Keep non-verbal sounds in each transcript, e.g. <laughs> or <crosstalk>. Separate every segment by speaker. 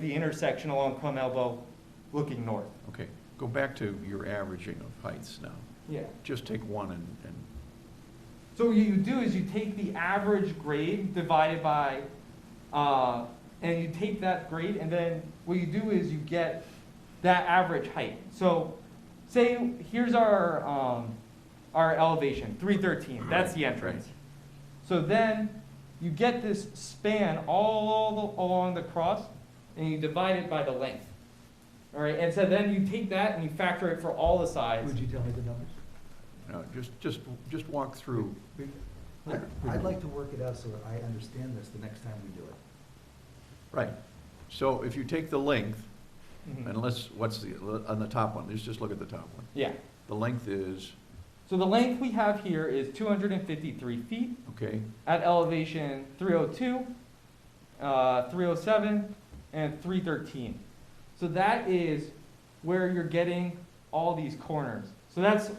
Speaker 1: the intersection along Plum Elbow, looking north.
Speaker 2: Okay, go back to your averaging of heights now.
Speaker 1: Yeah.
Speaker 2: Just take one and, and,
Speaker 1: So what you do is you take the average grade divided by, uh, and you take that grade, and then what you do is you get that average height. So say, here's our, um, our elevation, three thirteen, that's the
Speaker 2: Right,
Speaker 1: entrance. So then you get this span all along the cross, and you divide it by the length. All right, and so then you take that and you factor it for all the sides.
Speaker 3: Would you tell me the numbers?
Speaker 2: no, just, just, just walk through.
Speaker 3: I- I'd like to work it out so that I understand this the next time we do it.
Speaker 2: Right. So if you take the length,
Speaker 1: Mhm.
Speaker 2: and let's, what's the, on the top one, let's just look at the top one.
Speaker 1: Yeah.
Speaker 2: The length is,
Speaker 1: So the length we have here is 253 feet
Speaker 2: okay,
Speaker 1: at elevation 302, uh, 307, and 313. So that is where you're getting all these corners. So that's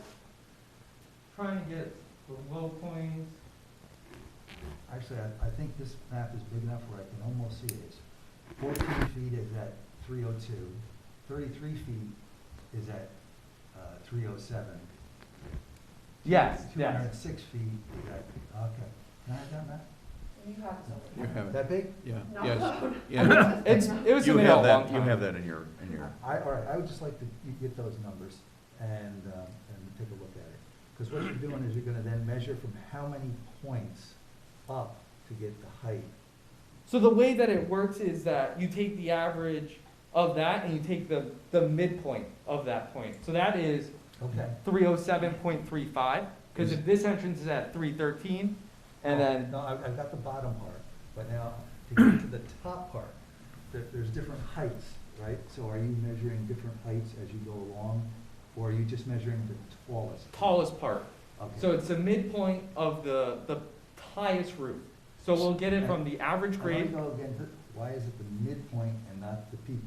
Speaker 1: trying to get the low points.
Speaker 3: Actually, I, I think this map is big enough where I can almost see it. It's Fourteen feet is at three oh two, thirty-three feet is at, uh, three oh seven.
Speaker 1: Yes,
Speaker 3: Two hundred and six feet is at, okay. Can I have that map?
Speaker 4: You have something.
Speaker 2: you have it,
Speaker 3: That big?
Speaker 2: yeah,
Speaker 4: No.
Speaker 1: <laughs>
Speaker 2: yes, yeah.
Speaker 1: It's, it was
Speaker 2: You
Speaker 1: submitted a
Speaker 2: have
Speaker 1: long
Speaker 2: that, you
Speaker 1: time.
Speaker 2: have that in your, in your,
Speaker 3: I, all right, I would just like to g- get those numbers and, um, and take a look at it. Because what you're doing is you're gonna then measure from how many points up to get the height.
Speaker 1: So the way that it works is that you take the average of that and you take the, the midpoint of that point. So that is
Speaker 3: Okay.
Speaker 1: 307.35, because if this entrance is at 313, and then,
Speaker 3: No, I've, I've got the bottom part, but now to get to the top part, there, there's different heights, right? So are you measuring different heights as you go along, or are you just measuring the tallest?
Speaker 1: tallest part.
Speaker 3: Okay.
Speaker 1: So it's the midpoint of the, the highest roof. So we'll get it from the average
Speaker 3: I wanna
Speaker 1: grade.
Speaker 3: go again, th- why is it the midpoint and not the peak?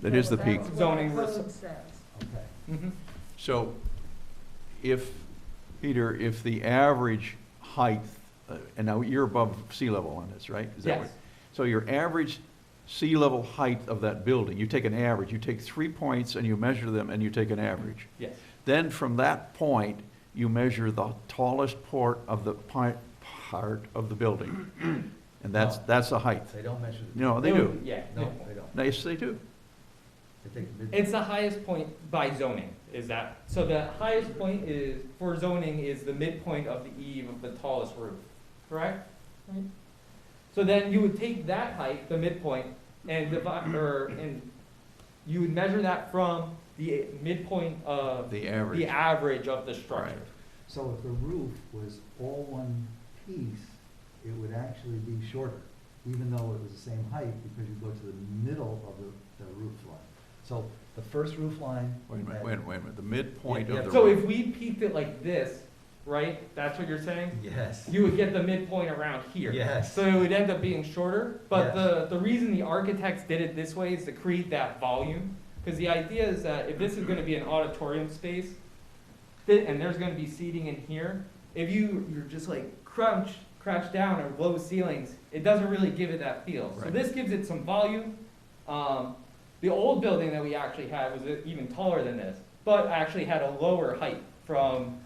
Speaker 2: That is the peak.
Speaker 4: Because that's what
Speaker 1: Zoning
Speaker 4: code
Speaker 1: res-
Speaker 4: says.
Speaker 3: Okay.
Speaker 1: Mhm.
Speaker 2: so if, Peter, if the average height, uh, and now you're above sea level on this, right? Is that what-
Speaker 1: Yes,
Speaker 2: So your average sea level height of that building, you take an average, you take three points and you measure them and you take an average.
Speaker 1: yes.
Speaker 2: Then from that point, you measure the tallest part of the pi- part of the
Speaker 1: <clears throat>
Speaker 2: building. And that's, that's the height.
Speaker 3: They don't measure the.
Speaker 2: No, Oh, they
Speaker 1: It
Speaker 2: do.
Speaker 1: would- Yeah.
Speaker 3: No,
Speaker 1: midpoint.
Speaker 3: they don't.
Speaker 2: Yes, they do.
Speaker 3: They take the midpoint.
Speaker 1: It's the highest point by zoning, is that, so the highest point is, for zoning, is the midpoint of the eve of the tallest roof, correct?
Speaker 4: Right.
Speaker 1: So then you would take that height, the midpoint, and divide, or, and you would measure that from the midpoint of
Speaker 2: The
Speaker 1: the
Speaker 2: average.
Speaker 1: average of the structure.
Speaker 3: So if the roof was all one piece, it would actually be shorter, even though it was the same height, because you go to the middle of the, the roof line. So the first roof line.
Speaker 2: Wait a minute,
Speaker 3: at-
Speaker 2: wait a minute, wait a minute. The midpoint
Speaker 3: Yeah,
Speaker 2: of the.
Speaker 1: So
Speaker 2: roof.
Speaker 1: if we peaked it like this, right, that's what you're saying?
Speaker 3: Yes.
Speaker 1: You would get the midpoint around here.
Speaker 3: Yes.
Speaker 1: So it would end up being shorter, but
Speaker 3: Yes.
Speaker 1: the, the reason the architects did it this way is to create that volume. Because the idea is that if this is gonna be an auditorium space, thi- and there's gonna be seating in here, if you, you're just like crouch, crouch down or low ceilings, it doesn't really give it that feel. So
Speaker 2: Right.
Speaker 1: this gives it some volume. Um, the old building that we actually had was even taller than this, but actually had a lower height from,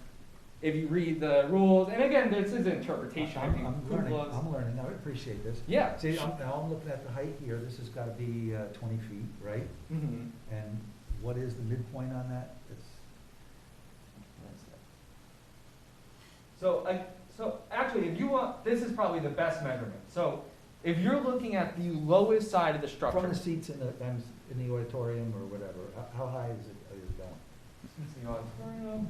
Speaker 1: if you read the rules, and again, this is interpretation. I
Speaker 3: I'm,
Speaker 1: mean,
Speaker 3: I'm
Speaker 1: who
Speaker 3: learning,
Speaker 1: loves-
Speaker 3: I'm learning, I appreciate this.
Speaker 1: Yeah.
Speaker 3: See, I'm, now I'm looking at the height here, this has gotta be, uh, twenty feet, right?
Speaker 1: Mhm.
Speaker 3: And what is the midpoint on that? It's, that's that.
Speaker 1: So, I, so actually, if you want, this is probably the best measurement. So, if you're looking at the lowest side of the structure,
Speaker 3: From the seats in the, um, in the auditorium or whatever, how- how high is it, is it going?
Speaker 1: Since the auditorium-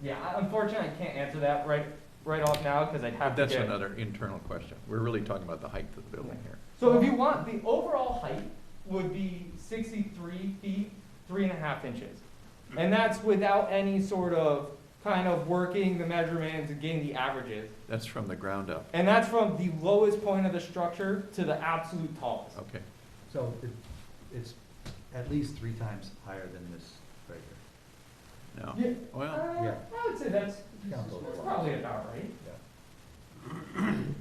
Speaker 1: yeah, I- unfortunately, I can't answer that right right off now because I'd have
Speaker 2: But That's
Speaker 1: to get.
Speaker 2: another internal question. We're really talking about the height of the building here.
Speaker 1: So, if you want, the overall height would be 63 feet three and a half inches, and that's without any sort of kind of working the measurements and getting the averages,
Speaker 2: That's from the ground up.
Speaker 1: and that's from the lowest point of the structure to the absolute tallest.
Speaker 2: Okay.
Speaker 3: So it, it's at least three times higher than this right here.
Speaker 2: No.
Speaker 1: Yeah.
Speaker 2: Well,
Speaker 1: Uh,
Speaker 3: Yeah.
Speaker 1: I would say that's,
Speaker 3: Yeah.
Speaker 1: that's probably about right.
Speaker 3: Yeah.
Speaker 1: <clears throat>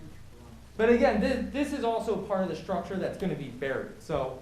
Speaker 1: But again, this, this is also part of the structure that's gonna be buried, so